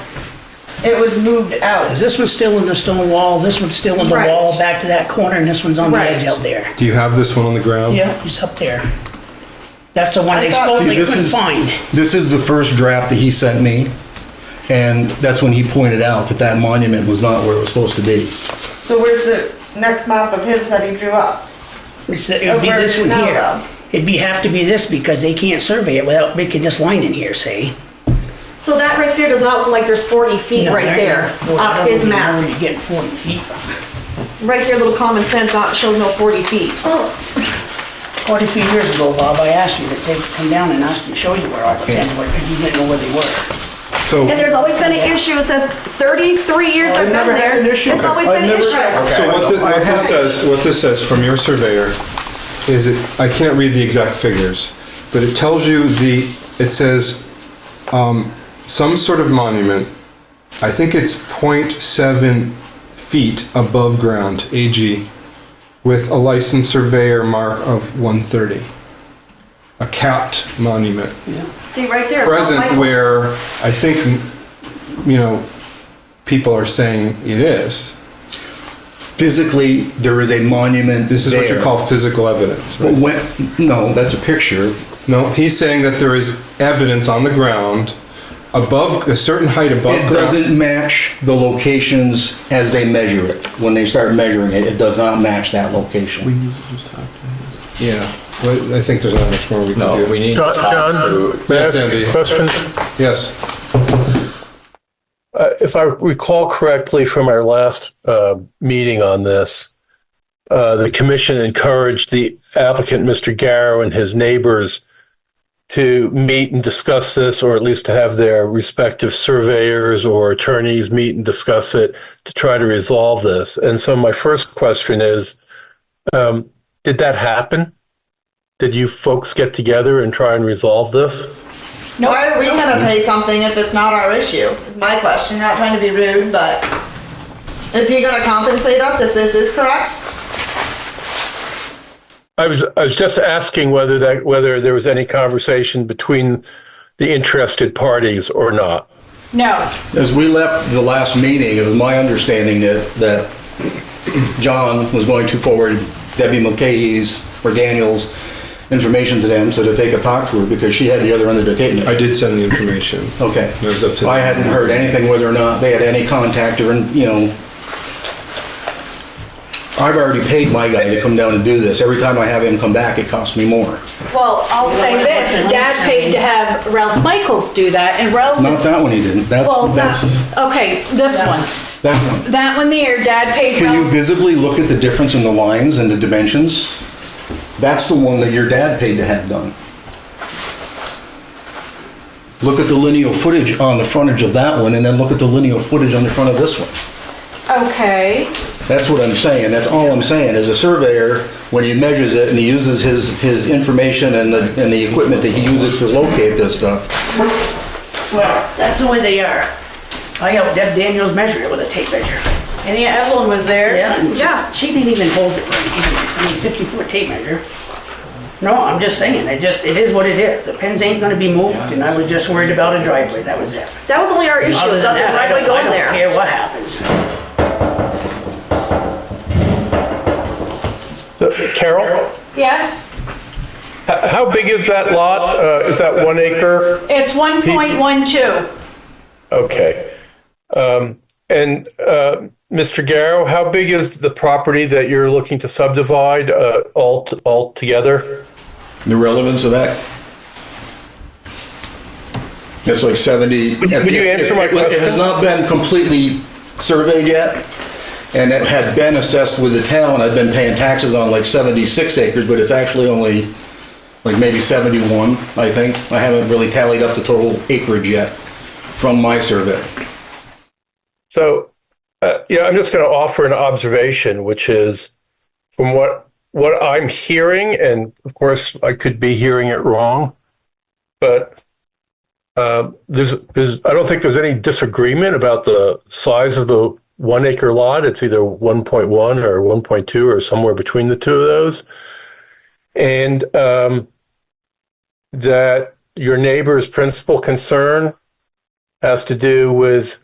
It was moved out. 'Cause this one's still in the stone wall, this one's still in the Right. wall, back to that corner, and this one's on the Right. edge out there. Do you have this one on the ground? Yeah, it's up there. That's the one I they thought- supposedly See, this couldn't is- find. This is the first draft that he sent me, and that's when he pointed out that that monument was not where it was supposed to be. So where's the next map of his that he drew up? It's, it'd be Over this it is one now, here. though. It'd be, have to be this because they can't survey it without making this line in here, see? So that right there does not look like there's 40 feet No, right they're there getting 40 I off don't his even know Where map. you're getting forty feet from. Right there, little common sense, not shows no 40 feet. Forty feet years ago, Bob, I asked you to take, come down and ask you, show you where all the pins were, because you didn't know where they were. So, And there's always been an issue since 33 years I've been never had there. an issue. It's always I've been an never- issue. so what, thi- what this says, what this says from your surveyor is it, I can't read the exact figures, but it tells you the, it says, um, some sort of monument, I think it's 0.7 feet above ground, AG, with a licensed surveyor mark of one thirty. A capped monument. See, right there. Mount present Michael's. where I think, you know, people are saying it is. Physically, there is a monument This is what you there. call physical evidence. But right? when- no, that's a picture. No, he's saying that there is evidence on the ground above a certain height above It ground. doesn't match the locations as they measure it. When they start measuring it, it does not match that location. Yeah, but I think there's not much more we can No, we do. need. John, John, may I Yes, ask Andy. a question? Yes, Uh, If I recall correctly from our last uh, meeting on this, uh, the commission encouraged the applicant, Mr. Garrow, and his neighbors to meet and discuss this, or at least to have their respective surveyors or attorneys meet and discuss it to try to resolve this. And so my first question is, um, did that happen? Did you folks get together and try and resolve this? Why are we gonna pay something if it's not our issue? Is my question. Not trying to be rude, but is he gonna compensate us if this is correct? I was I was just asking whether that whether there was any conversation between the interested parties or not. No, As we left the last meeting, it was my understanding that, that John was going to forward Debbie mulcahy's or Daniel's information to them so that they could talk to her because she had the other end of the table. I did send the information. Okay. It was up to I them. hadn't heard anything whether or not they had any contact or, you know. I've already paid my guy to come down and do this. Every time I have him come back, it costs me more. well, I'll say this, Dad paid to have Ralph Michaels do that, and Ralph Not is, that one he didn't. That's, well, not, that's, okay, this one. that one. That one there, Dad paid Can you Ralph, visibly look at the difference in the lines and the dimensions? That's the one that your dad paid to have done. Look at the lineal footage on the frontage of that one and then look at the lineal footage on the front of this one. okay, That's what I'm saying, that's all I'm saying, is a surveyor, when he measures it and he uses his, his information and the, and the equipment that he uses to locate this stuff, Well, that's the way they are. I helped Deb Daniels measure it with a tape measure. and yeah, Evelyn was there. and she- Yeah. She didn't even hold it right, either. I mean, fifty foot tape measure. No, I'm just saying, it just, it is what it is. The pins ain't gonna be moved, and I was just worried about a driveway, that was it. That was only our issue, Other the than that, I driveway don't, I going don't there. care what happens. Carol, Yes, h- how big is that lot? Uh, is that one acre? it's 1.12. Okay. Um, and uh, Mr. Garrow, how big is the property that you're looking to subdivide uh, all all together? The relevance of that? It's like 70. Would would you answer my it has question? not been completely surveyed yet. And it had been assessed with the town, I've been paying taxes on like seventy-six acres, but it's actually only like maybe seventy-one, I think. I haven't really tallied up the total acreage yet from my survey. So, uh, you know, I'm just going to offer an observation, which is from what what I'm hearing, and of course, I could be hearing it wrong, but uh, there's, there's I don't think there's any disagreement about the size of the one acre lot. It's either 1.1 or 1.2 or somewhere between the two of those, and um, that your neighbor's principal concern has to do with